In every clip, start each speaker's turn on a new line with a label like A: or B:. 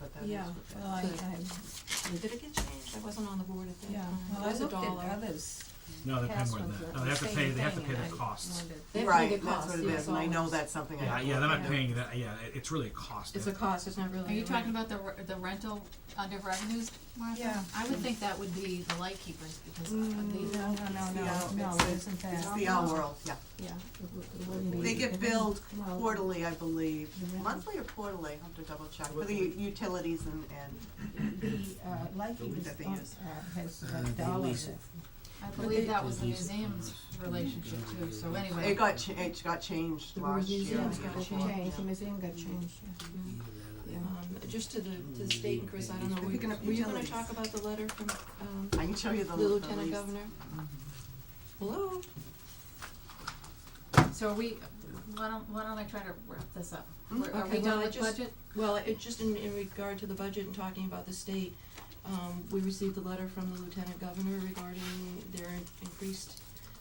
A: that is
B: Yeah,
A: what that
B: well, I,
A: is.
B: I,
A: Did it get changed? I wasn't on the board at that
B: yeah,
A: time.
B: well,
A: It
B: I
A: was a
B: looked
A: dollar.
B: at others.
C: No, they're paying
B: past
C: more than
B: ones
C: that.
B: were
C: No,
B: the
C: they have to
B: same
C: pay, they have to
B: thing,
C: pay
B: and
C: their
B: I
C: costs.
B: wondered.
A: They have to pay
D: Right,
A: the
D: that's what
A: cost,
D: it
A: yes,
D: is, and I know
A: always.
D: that's something I
C: Yeah,
D: have to
C: yeah, they're
D: look
C: not
D: at.
C: paying that, yeah, it- it's really a cost.
A: It's a cost, it's not really.
E: Are you
A: a
E: talking
A: rent.
E: about the, re- the rental under revenues, Martha?
B: Yeah.
E: I would think that would be the lightkeepers, because uh,
B: No, no,
A: Mm.
B: no,
D: it's
B: no, no,
D: the-
B: it isn't
D: It's
B: that.
D: the all world, yeah.
B: Yeah. it wou- it wouldn't be-
D: They get
B: it wouldn't-
D: billed
A: Oh.
B: well,
D: quarterly, I believe,
B: The rent-
D: monthly or quarterly, I'll have to double check, for the u- utilities and, and,
B: The, uh, like he was,
D: That they
B: on-
D: use.
B: uh, has a dollar. there.
E: I
B: they-
E: believe that was the museum's relationship too, so
D: it
E: anyway.
D: got, cha- it got changed
B: The
D: last year.
B: museum
D: yeah,
B: got
D: before,
B: changed, the
D: yeah.
B: museum got changed, yeah.
A: Um, just to the,
D: Mm-hmm.
A: to the state and Chris, I don't know, were you
D: Picking
A: gonna,
D: up
A: were you gonna
D: utilities.
A: talk about the letter from, um,
D: I can show you the
A: the
D: the
A: lieutenant
D: lease.
A: governor?
D: Mm-hmm.
A: Hello?
E: So are we, why don't, why don't I try to wrap this up?
D: Mm,
E: We're- Are
A: Hmm? okay,
E: we done
A: well, I
E: with
A: just-
E: budget?
A: Well, it, just in, in regard to the budget and talking about the state, um, we received a letter from the lieutenant governor regarding their increased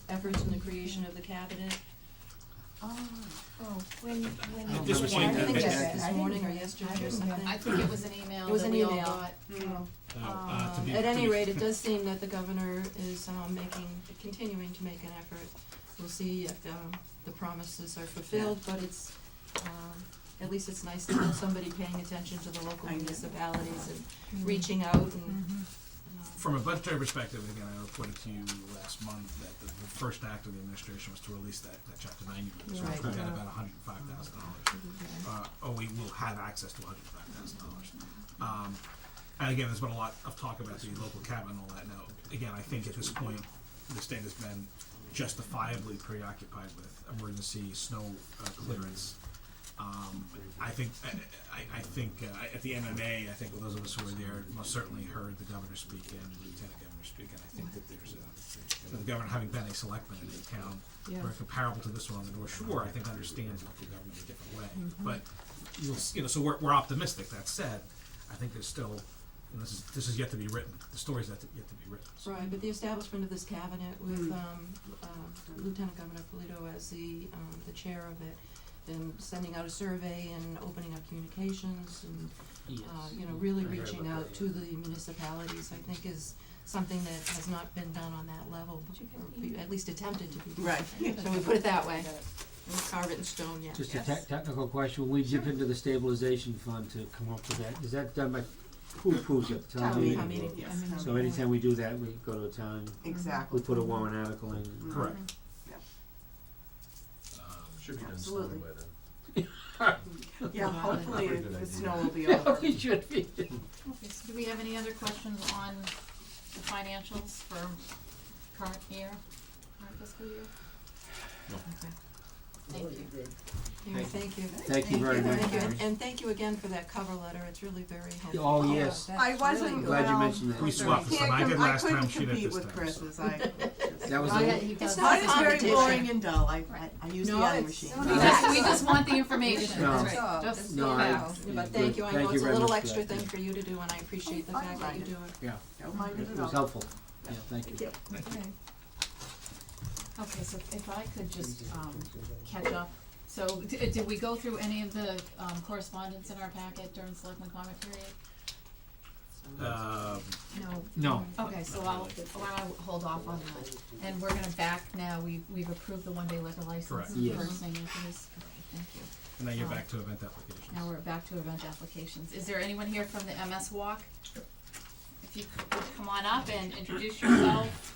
A: efforts in the creation of the cabinet.
D: Oh,
B: Oh, when, when.
C: At this point,
A: I think
C: it's-
A: that's
B: I
A: this
B: didn't-
A: morning or yesterday or
B: didn't
A: something.
B: get-
E: I think it was an email
A: It was
E: that
A: an
E: we all
A: email.
E: got.
A: Oh.
D: mm,
C: Uh, uh, to be-
A: Um, At
C: to
A: any
C: be-
A: rate, it does seem that the governor is, um, making, continuing to make an effort. We'll see if, um, the promises are fulfilled, but it's, um, at least it's nice to have somebody paying attention to the local
D: I know.
A: municipalities and reaching out and,
B: Mhm.
D: Mm-hmm.
A: um,
C: From a budgetary perspective, again, I reported to you last month that the, the first act of the administration was to release that, that chapter ninety release, which
B: Right.
C: we had about hundred and five thousand dollars. Uh, oh, we will have access to hundred and five thousand dollars. Um, and again, there's been a lot of talk about the local cabinet and all that. Now, again, I think at this point, the state has been justifiably preoccupied with emergency snow uh, clearance. Um, I think, I- I, I think, uh, I- at the MMA, I think those of us who were there most certainly heard the governor speak and the lieutenant governor speak, and I think that there's a, the governor having been a selectman in a town,
B: Yeah.
C: very comparable to this one on the North Shore, I think understands local government in a different way. But you'll, s- you know, so we're, we're optimistic, that said, I think there's still, and this is, this is yet to be written, the story's yet to, yet to be written, so.
A: Right, but the establishment of this cabinet with
D: Mm.
A: um, uh, Lieutenant Governor Polito as the, um, the chair of it, and sending out a survey and opening up communications and, uh, you know, really
F: I heard
A: reaching
F: about
A: out
F: that,
A: to
F: yeah.
A: the municipalities, I think is something that has not been done on that level, or be- at least attempted to be.
D: right, yeah.
A: So we put it that way, We'll carve it in stone, yeah.
F: Just a tec- technical question, when we dip into the stabilization fund to come up with that, is that done by, who approves it,
D: Town
F: town meeting?
A: Town meeting.
D: yes.
B: I mean,
F: So anytime we do that, we go to a town,
D: Exactly. Hmm.
F: we put a warrant article in.
C: Correct.
G: Should be done
D: Absolutely.
G: slowly by then.
D: Yeah, hopefully
G: Pretty good
D: the
G: idea.
D: snow will be over.
F: We should be.
E: Okay, so do we have any other questions on the financials for current year, current fiscal year?
G: No.
E: Okay. Thank you.
A: Anyway, thank you.
F: Thank you very much.
A: Thank you,
F: Mary.
A: and- and thank you again for that cover letter, it's really very helpful.
F: Oh,
B: yeah,
F: yes,
B: that's
D: I wasn't-
F: I'm
B: really
F: glad you
D: Well,
F: mentioned that.
C: We swapped this time, I did last time, she did this time.
D: Can't, com- I couldn't compete with Chris's, I,
F: That was
E: Go ahead,
F: the,
E: he does.
A: It's not
D: mine is very
A: competition.
D: boring and dull, I, I, I use the
A: No,
D: other
A: it's-
D: machine.
A: no,
E: We just, we just want the information,
F: No.
E: that's right, just
F: no, I,
E: facts.
A: Yeah,
F: yeah,
A: But thank
F: good.
A: you, I know it's a
F: very
A: little
F: much for
A: extra
F: that.
A: thing for you to do, and I appreciate the
D: Oh,
A: fact that you
D: fine.
A: do it.
F: Yeah,
D: Don't mind it
F: it
D: at
F: was
D: all.
F: helpful, yeah, thank you.
B: okay.
E: Okay, so if I could just, um, catch up, so, d- uh, did we go through any of the, um, correspondence in our packet during selectman comment period?
C: Um,
E: No.
F: No.
E: Okay, so I'll, why don't I hold off on that, and we're gonna back now, we, we've approved the one-day liquor license,
C: Correct.
E: first thing,
F: Yes.
E: after this, okay, thank you.
C: and now you're
E: Um,
C: back to event applications.
E: Now we're back to event applications. Is there anyone here from the MS Walk? If you could would come on up and introduce yourself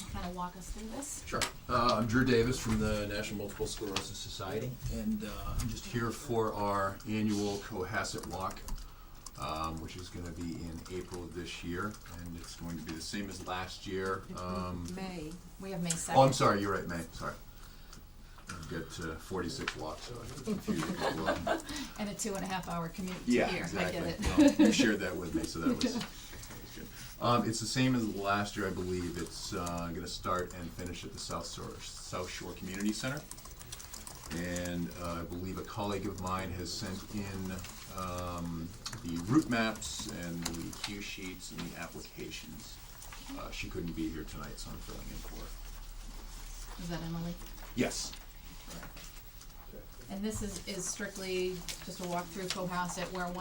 E: and kind of walk us through this.
G: Sure. Uh, I'm Drew Davis from the National Multiple Sclerosis Society, and uh, I'm just here for our annual Cohasset Walk, um, which is going to be in April of this year, and it's going to be the same as last year. Um,
E: May. We have May second.
G: oh, I'm sorry, you're right, May. Sorry. I've got uh, 46 walks, so I confused. people. Um,
E: And a two and a half hour commute to here.
G: Yeah, exactly.
E: I get it.
G: Well, you shared that with me, so that was, that was good. Um, it's the same as last year, I believe. It's uh, going to start and finish at the South Shore, South Shore Community Center. And uh, I believe a colleague of mine has sent in um, the route maps and the cue sheets and the applications. Uh, she couldn't be here tonight, so I'm filling in for her.
E: Is that Emily?
G: Yes.
E: And this is, is strictly just a walk through Cohasset where one